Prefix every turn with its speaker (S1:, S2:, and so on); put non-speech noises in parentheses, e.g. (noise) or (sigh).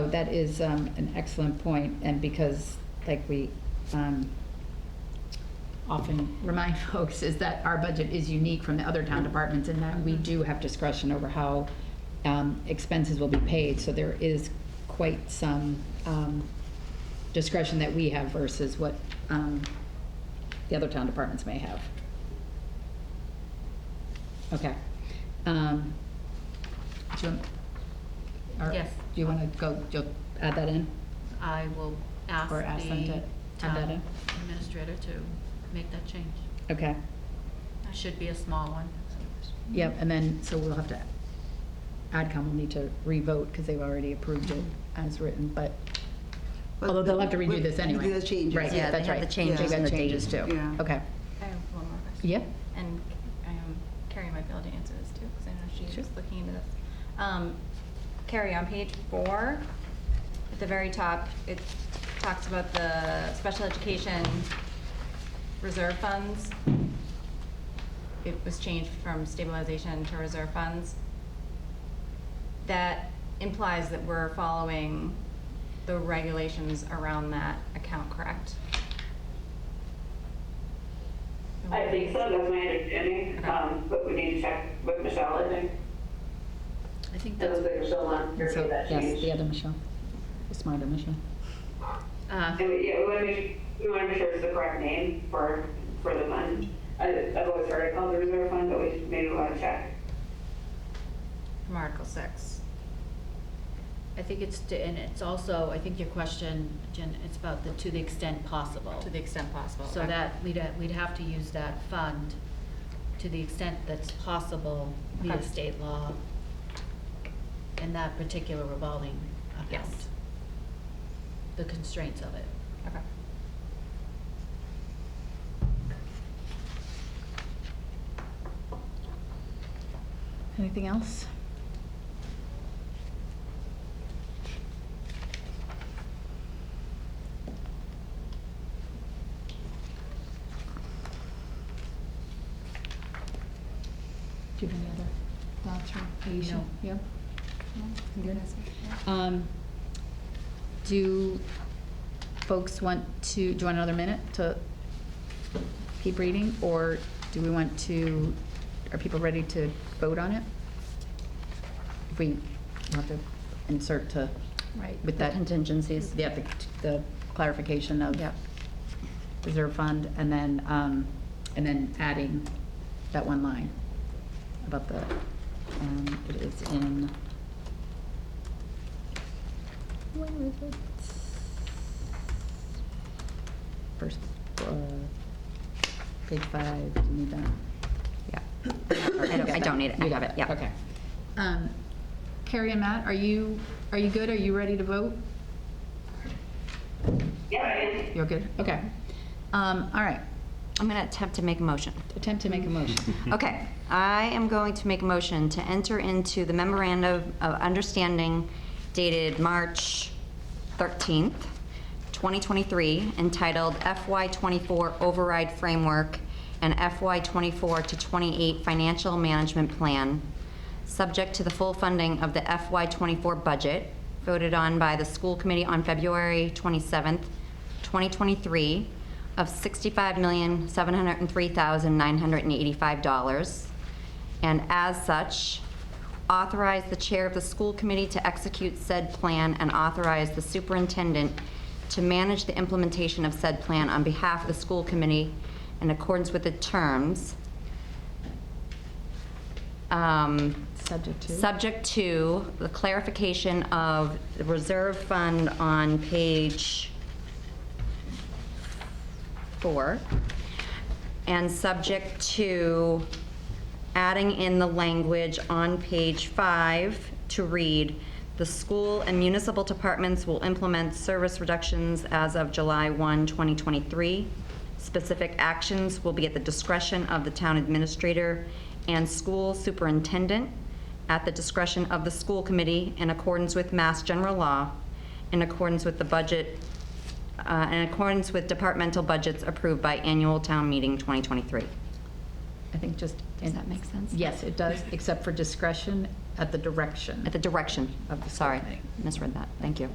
S1: that is um, an excellent point, and because, like we um, often remind (laughs) folks, is that our budget is unique from the other town departments in that we do have discretion over how um, expenses will be paid, so there is quite some um, discretion that we have versus what um, the other town departments may have. Okay. Um, do you want- or
S2: Yes.
S1: Do you want to go, you'll add that in?
S2: I will ask
S1: Or ask them to
S2: the
S1: add that
S2: town
S1: in.
S2: administrator to make that change.
S1: Okay,
S2: It should be a small one.
S1: yep, and then, so we'll have to, AdCom will need to revote because they've already approved it as written, but, although they'll have to redo this anyway.
S3: The changes.
S1: Right,
S4: Yeah, they
S1: that's
S4: have
S1: right.
S4: the changes
S1: They've got
S4: and the
S1: changes
S4: date.
S1: too.
S3: Yeah.
S1: Okay,
S5: I have one more question.
S1: yeah,
S5: And um, Carrie might be able to answer this too, because I know she's
S1: Sure.
S5: looking into this. Um, Carrie, on page four, at the very top, it talks about the special education reserve funds. It was changed from stabilization to reserve funds. That implies that we're following the regulations around that account, correct?
S6: I think so, that's my understanding,
S5: Okay.
S6: um, but we need to check with Michelle, I think.
S2: I think
S6: It
S2: that's,
S6: looks like Michelle on here
S1: so,
S6: for that
S1: yes, the
S6: change.
S1: other Michelle, the smarter Michelle.
S2: uh,
S6: And we, yeah, we wanna make, we wanna make sure it's the correct name for, for the fund. I, I've always heard it called the reserve fund, but we maybe wanna check.
S5: From Article six.
S2: I think it's, to- and it's also, I think your question, Jen, it's about the, to the extent possible.
S5: To the extent possible.
S2: So
S5: okay.
S2: that, we'd, ha- we'd have to use that fund to the extent that's possible via
S5: Okay.
S2: state law in that particular revolving account.
S5: Yes.
S2: The constraints of it.
S5: Okay.
S1: Anything else? Do you have any other thoughts or Aisha?
S2: No.
S1: Yeah? You good? Um, do folks want to, do you want another minute to keep reading? Or do we want to, are people ready to vote on it? If we have to insert to,
S4: Right,
S1: with that-
S4: The contingencies.
S1: yeah, the- the clarification of
S4: Yep.
S1: reserve fund and then, um, and then adding that one line about the, um, it is in. Where is it? First, uh, page five, do you need that? Yeah.
S4: I don't- I don't need it. I
S1: You
S4: have
S1: got
S4: it, yeah.
S1: Okay. Um, Carrie and Matt, are you, are you good? Are you ready to vote?
S6: Yeah, I am.
S1: You're good? Okay. Um, all right,
S4: I'm going to attempt to make a motion.
S1: attempt to make a motion.
S4: Okay, I am going to make a motion to enter into the memorandum of understanding dated March 13th, 2023, entitled FY24 Override Framework and FY24 to 28 Financial Management Plan, subject to the full funding of the FY24 budget voted on by the school committee on February 27th, 2023 of $65,703,985. And as such, authorize the chair of the school committee to execute said plan and authorize the superintendent to manage the implementation of said plan on behalf of the school committee in accordance with the terms um,
S1: (laughs) Subject to?
S4: Subject to the clarification of the reserve fund on page four, and subject to adding in the language on page five to read, "The school and municipal departments will implement service reductions as of July 1, 2023. Specific actions will be at the discretion of the town administrator and school superintendent, at the discretion of the school committee in accordance with Mass General Law, in accordance with the budget, uh, in accordance with departmental budgets approved by annual town meeting 2023."
S1: I think just.
S4: Does that make sense?
S1: Yes, it does, except for discretion at the direction.
S4: At the direction of,
S1: Of the
S4: sorry,
S1: school committee.
S4: misread that, thank you.